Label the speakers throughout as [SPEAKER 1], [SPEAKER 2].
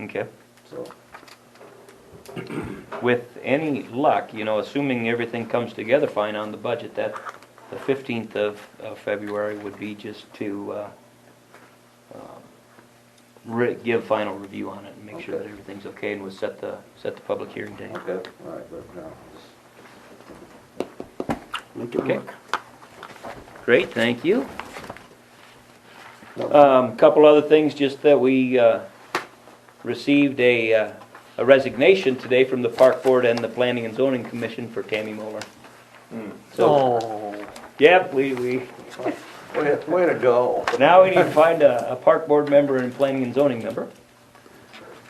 [SPEAKER 1] Okay.
[SPEAKER 2] so.
[SPEAKER 1] With any luck, you know, assuming everything comes together fine on the budget, that, the 15th of, of February would be just to, uh, um, re, give final review on it and make sure
[SPEAKER 2] Okay.
[SPEAKER 1] that everything's okay and we'll set the, set the public hearing date.
[SPEAKER 2] Okay, all right, but uh, now, just-
[SPEAKER 3] Make it
[SPEAKER 1] Okay.
[SPEAKER 3] work.
[SPEAKER 1] Great, thank you.
[SPEAKER 2] no,
[SPEAKER 1] Um, couple other things, just that we, uh, received a, uh, a resignation today from the Park Board and the Planning and Zoning Commission for Tammy Moeller. So,
[SPEAKER 3] Oh,
[SPEAKER 1] yep, we, we,
[SPEAKER 2] Way, way to go.
[SPEAKER 1] now we need to find a, a Park Board member and Planning and Zoning member,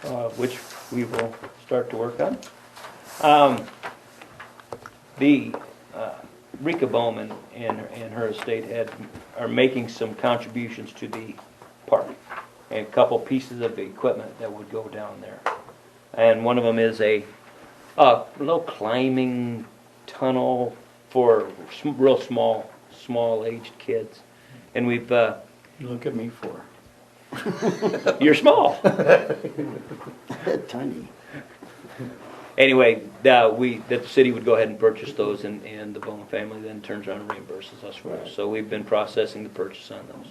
[SPEAKER 1] uh, which we will start to work on. Um, the, uh, Rika Bowman and, and her estate had, are making some contributions to the park. And a couple pieces of equipment that would go down there. And one of them is a, a little climbing tunnel for sm- real small, small aged kids. And we've, uh,
[SPEAKER 4] Look at me for.
[SPEAKER 1] you're small.
[SPEAKER 3] tiny.
[SPEAKER 1] Anyway, uh, we, that the city would go ahead and purchase those and, and the Bowman family then turns around and reimburses us for those. So we've been processing the purchase on those.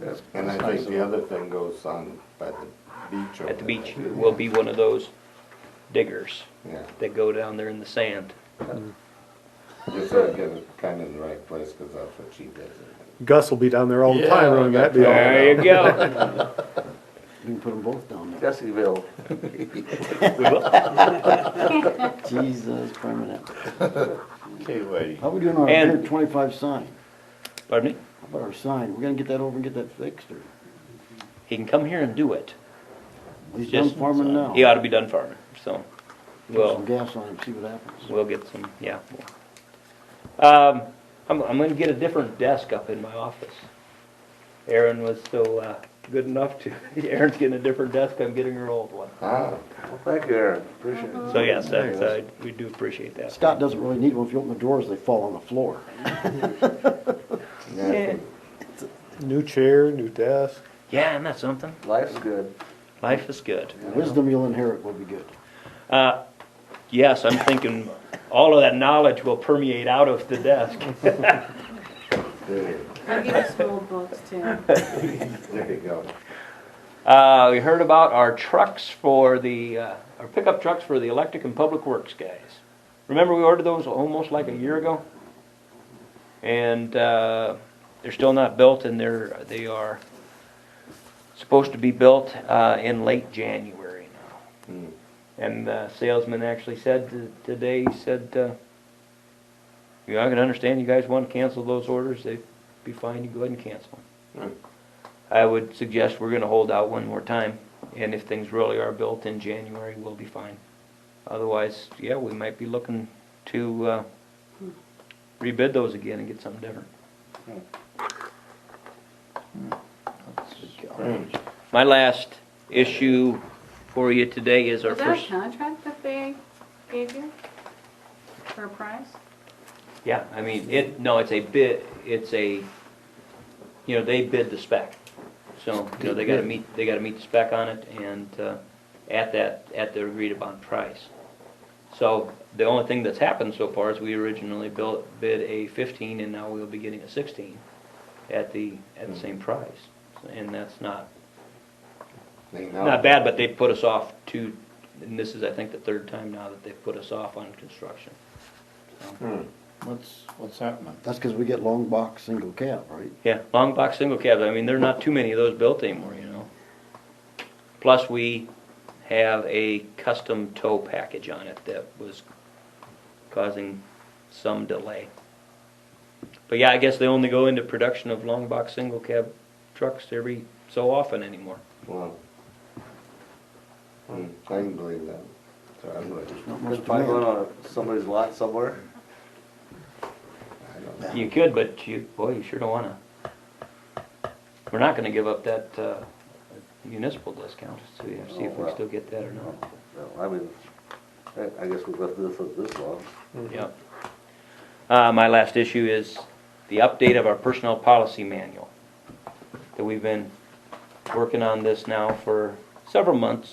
[SPEAKER 2] That's-
[SPEAKER 5] And I think the other thing goes on by the beach. over
[SPEAKER 1] At the
[SPEAKER 5] there.
[SPEAKER 1] beach, will be one of those diggers
[SPEAKER 5] Yeah,
[SPEAKER 1] that go down there in the sand.
[SPEAKER 5] just gotta get it kind of in the right place, cause that's what she does.
[SPEAKER 6] Gus will be down there all the
[SPEAKER 4] Yeah,
[SPEAKER 6] time running that deal.
[SPEAKER 1] There you go.
[SPEAKER 3] We can put them both down there.
[SPEAKER 2] Jesseville,
[SPEAKER 1] We will.
[SPEAKER 3] Jesus, permanent.
[SPEAKER 4] Okay, lady.
[SPEAKER 3] How we doing on our
[SPEAKER 1] And-
[SPEAKER 3] hundred twenty-five sign?
[SPEAKER 1] Pardon me?
[SPEAKER 3] How about our sign? We're gonna get that over and get that fixed, or
[SPEAKER 1] He can come here and do it.
[SPEAKER 3] he's done
[SPEAKER 1] Just-
[SPEAKER 3] farming now.
[SPEAKER 1] He ought to be done farming, so.
[SPEAKER 3] Put
[SPEAKER 1] Well.
[SPEAKER 3] Some gas on him, see what happens.
[SPEAKER 1] We'll get some, yeah. Um, I'm, I'm gonna get a different desk up in my office. Aaron was so, uh, good enough to, Aaron's getting a different desk, I'm getting her old one.
[SPEAKER 5] Ah,
[SPEAKER 2] well, thank you, Aaron, appreciate it.
[SPEAKER 1] So yes,
[SPEAKER 3] There
[SPEAKER 1] that's, uh, we do appreciate that.
[SPEAKER 3] Scott doesn't really need one. If you open the doors, they fall on the floor.
[SPEAKER 5] yeah,
[SPEAKER 6] New chair, new desk.
[SPEAKER 1] Yeah, isn't that something?
[SPEAKER 2] Life's good.
[SPEAKER 1] Life is good.
[SPEAKER 3] The Wisdom you'll inherit will be good.
[SPEAKER 1] Uh, yes, I'm thinking all of that knowledge will permeate out of the desk.
[SPEAKER 5] there,
[SPEAKER 7] I'll give us school books too.
[SPEAKER 5] there you go.
[SPEAKER 1] Uh, we heard about our trucks for the, uh, our pickup trucks for the electric and public works guys. Remember we ordered those almost like a year ago? And, uh, they're still not built and they're, they are supposed to be built, uh, in late January now.
[SPEAKER 5] Hmm.
[SPEAKER 1] And the salesman actually said t- today, he said, uh, you know, I can understand you guys want to cancel those orders, they'd be fine, you go ahead and cancel
[SPEAKER 5] Hmm.
[SPEAKER 1] them. I would suggest we're gonna hold out one more time, and if things really are built in January, we'll be fine. Otherwise, yeah, we might be looking to, uh, rebid those again and get something different. Hmm, My last issue for you today is our
[SPEAKER 7] Was that
[SPEAKER 1] first.
[SPEAKER 7] a contract that they gave you for a price?
[SPEAKER 1] Yeah, I mean, it, no, it's a bid, it's a, you know, they bid the spec. So, you know, they gotta meet, they gotta meet the spec on it and, uh, at that, at the agreed upon price. So the only thing that's happened so far is we originally built, bid a fifteen and now we'll be getting a sixteen at the, at the same price. And that's not,
[SPEAKER 5] They know.
[SPEAKER 1] not bad, but they put us off two, and this is, I think, the third time now that they've put us off on construction.
[SPEAKER 5] Hmm.
[SPEAKER 4] What's, what's happening?
[SPEAKER 3] That's because we get long box, single cab, right?
[SPEAKER 1] Yeah, long box single cabs, I mean, there are not too many of those built anymore, you know? Plus, we have a custom tow package on it that was causing some delay. But yeah, I guess they only go into production of long box single cab trucks every so often anymore.
[SPEAKER 5] Well. Hmm, I can believe that. So I would,
[SPEAKER 3] Not
[SPEAKER 2] There's
[SPEAKER 3] much
[SPEAKER 2] probably going
[SPEAKER 3] demand.
[SPEAKER 2] on somebody's lot somewhere.
[SPEAKER 5] I don't know.
[SPEAKER 1] You could, but you, boy, you sure don't wanna. We're not gonna give up that uh, municipal discount, so we have to see if we still get that or not.
[SPEAKER 2] Well, I mean, I- I guess we've left this, this long.
[SPEAKER 1] Yep. Uh, my last issue is the update of our personnel policy manual. That we've been working on this now for several months